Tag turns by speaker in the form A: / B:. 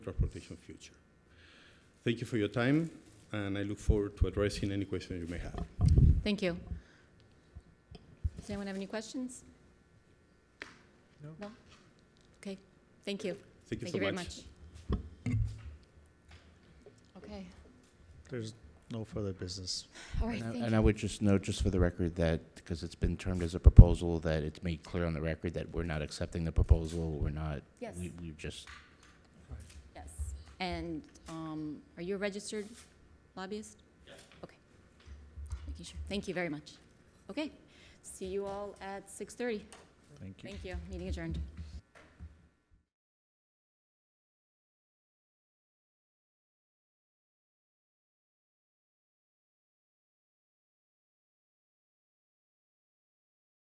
A: transportation future. Thank you for your time, and I look forward to addressing any questions you may have.
B: Thank you. Does anyone have any questions?
C: No.
B: Okay, thank you.
A: Thank you so
B: Thank you very
A: much.
B: much. Okay,
C: There's no further business.
B: all right,
D: And I-
B: thank
D: And I
B: you.
D: would just note, just for the record, that, because it's been termed as a proposal, that it's made clear on the record that we're not accepting the proposal, we're not,
B: Yes,
D: we, we just,
B: yes. And um, are you a registered lobbyist? Okay. Making sure. Thank you very much. Okay, see you all at 6:30.
C: Thank you.
B: Thank you. Meeting adjourned.